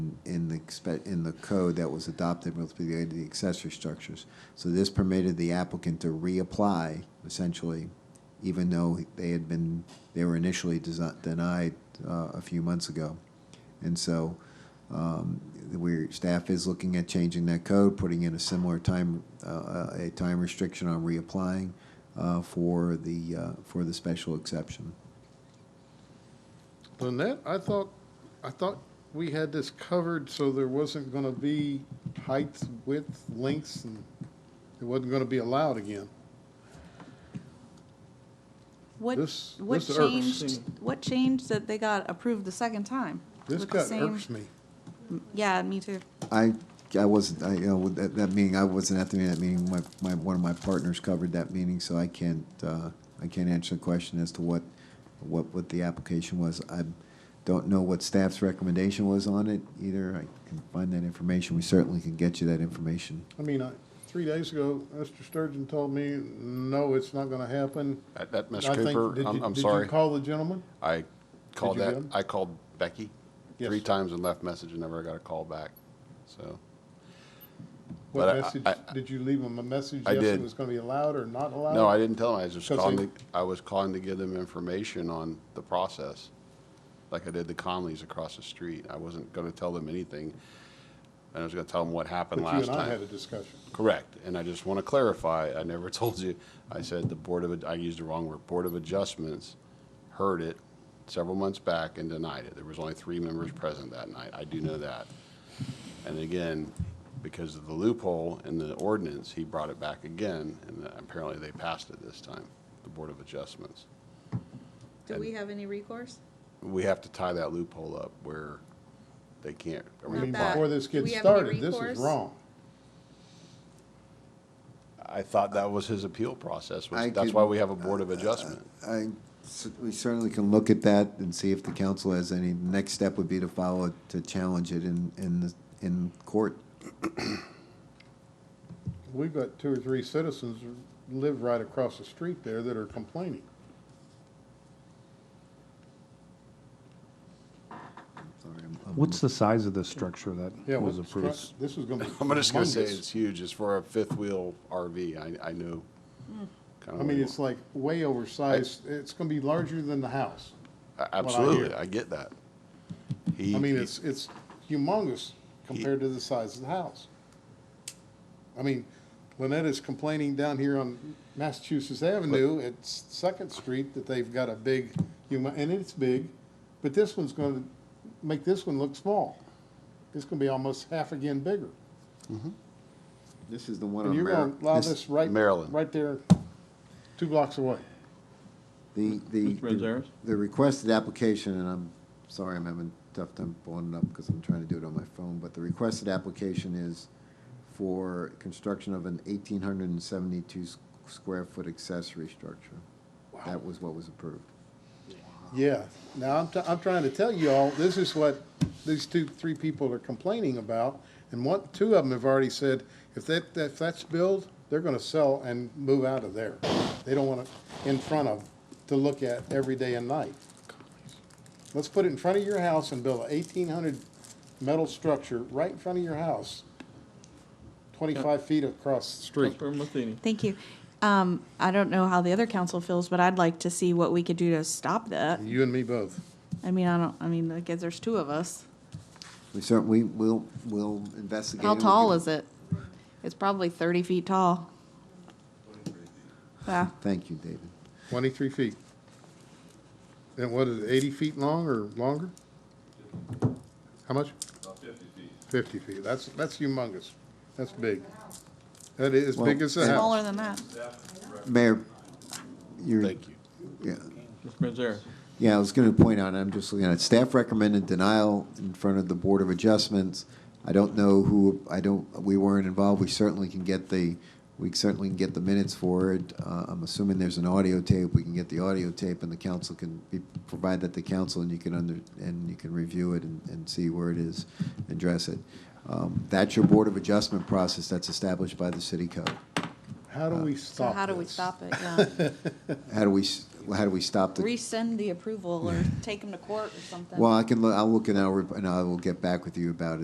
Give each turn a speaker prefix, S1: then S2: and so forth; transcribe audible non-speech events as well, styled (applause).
S1: in the, expe- in the code that was adopted with regard to the accessory structures. So this permitted the applicant to reapply, essentially, even though they had been, they were initially desi- denied uh, a few months ago. And so um, we're, staff is looking at changing that code, putting in a similar time, uh, a time restriction on reapplying uh, for the, uh, for the special exception.
S2: Lynette, I thought, I thought we had this covered so there wasn't gonna be heights, width, lengths, and it wasn't gonna be allowed again.
S3: What,
S2: This-
S3: what
S2: this irks
S3: changed,
S2: me.
S3: what changed that they got approved the second time?
S2: This
S3: With the
S2: got
S3: same-
S2: irks me.
S3: Yeah, me too.
S1: I, I wasn't, I, you know, with that, that meeting, I wasn't at the meeting, that meeting, my, my, one of my partners covered that meeting, so I can't, uh, I can't answer the question as to what, what, what the application was. I don't know what staff's recommendation was on it either, I can find that information, we certainly can get you that information.
S2: I mean, I, three days ago, Mr. Sturgeon told me, no, it's not gonna happen.
S4: That- That, Ms.
S2: I think- did
S4: Cooper,
S2: you-
S4: I'm, I'm
S2: Did
S4: sorry.
S2: you call the gentleman?
S4: I called
S2: you
S4: that,
S2: get 'em?
S4: I called Becky three
S2: Yes.
S4: times and left message and never got a call back, so. But
S2: What
S4: I-
S2: message,
S4: I-
S2: did you leave him a message?
S4: I
S2: Yes, it
S4: did.
S2: was gonna be allowed or not allowed?
S4: No, I didn't tell him. I was just
S2: 'Cause
S4: calling,
S2: Uh, they-
S4: to- I was calling to give them information on the process, like I did the Conleys across the street. I wasn't gonna tell them anything. I was gonna tell them what happened
S2: But you
S4: last
S2: and I had a
S4: time.
S2: discussion.
S4: Correct, and I just wanna clarify, I never (laughs) told you, I said the Board of, I used the wrong word, Board of Adjustments heard it several months back and denied it. There was only three members present that night. I do know that. And again, because of the loophole in the ordinance, he brought it back again, and apparently they passed it this time, the Board of Adjustments.
S3: Do we have any recourse?
S4: We have to tie that loophole up where they can't
S2: I mean,
S3: that.
S2: before
S4: reapply.
S2: this
S3: We
S2: gets
S3: have any
S2: started, this
S3: recourse?
S2: is wrong.
S4: I thought that was his appeal process,
S1: I
S4: was- that's
S1: could-
S4: why we have a Board of Adjustment.
S1: I, cer- we certainly can look at that and see if the council has any, next step would be to follow, it to challenge it in, in, the- in court.
S2: We've got two or three citizens who live right across the street there that are complaining.
S1: Sorry, I'm- I'm-
S5: What's the size of the structure
S2: Yeah,
S5: that was
S2: what's
S5: approved?
S2: stru- This is gonna be
S4: (laughs) I'm just gonna say
S2: humongous.
S4: it's huge, it's for a fifth wheel RV, I, I know. kinda
S2: I mean,
S4: what-
S2: it's like way oversized, it's gonna be larger than the house.
S4: A-
S2: hear.
S4: Absolutely, I get that.
S2: I
S4: He-
S2: mean,
S4: he-
S2: it's, it's humongous compared to the size of the house. I mean, Lynette is complaining down here on Massachusetts Avenue at S- Second Street that they've got a big human, and it's big, but this one's gonna make this one look small. It's gonna be almost half again bigger.
S1: This is the one
S2: And
S1: on
S2: you're gonna
S1: Merrill.
S2: allow this right,
S4: Maryland.
S2: right there, two blocks away.
S1: The, the.
S6: Mr. Renzeris?
S1: The requested application, and I'm sorry, I'm having a tough time pulling it up because I'm trying to do it on my phone, but the requested application is for construction of an eighteen hundred and seventy-two square foot accessory structure. That was what was approved.
S2: Yeah, now I'm, t- I'm trying to tell you all, this is what these two, three people are complaining about. And one, two of them have already said, if that, if that's built, they're gonna sell and move out of there. They don't want it in front of, to look at every day and night. Let's put it in front of your house and build an eighteen hundred metal structure right in front of your house, twenty-five feet across the street.
S6: Councilmember Matheny?
S3: Thank you. Um, I don't know how the other council feels, but I'd like to see what we could do to stop that.
S2: You and me both.
S3: I mean, I don't, I mean, I guess there's two of us.
S1: We certainly, we'll, we'll investigate.
S3: How
S1: it. We
S3: tall
S1: can-
S3: is it? It's probably thirty feet tall. Yeah,
S1: Thank you, David.
S2: Twenty-three feet. And what is it, eighty feet long or longer? How much? fifty feet. Fifty feet, that's, that's humongous, that's big. That is as big
S1: Well,
S2: as a
S3: smaller
S2: house.
S3: than that.
S1: Mayor, you're.
S4: Thank you.
S1: Yeah.
S6: Mr. Renzeris?
S1: Yeah, I was going to point out, I'm just looking at it, staff recommended denial in front of the Board of Adjustments. I don't know who, I don't, we weren't involved, we certainly can get the, we certainly can get the minutes for it. Uh, I'm assuming there's an audio tape, we can get the audio tape, and the council can, be- provide that to council, and you can under, and you can review it and, and see where it is, address it. Um, That's your Board of Adjustment process that's established by the city code.
S2: How do we
S3: So
S2: stop
S3: how do we
S2: this? (laughs)
S3: stop it? Yeah.
S1: How do we, s- how do we stop the?
S3: Rescind the approval or take them to court or something.
S1: Well, I can, loo- I'll look and I'll, rep- and I will get back with you about it.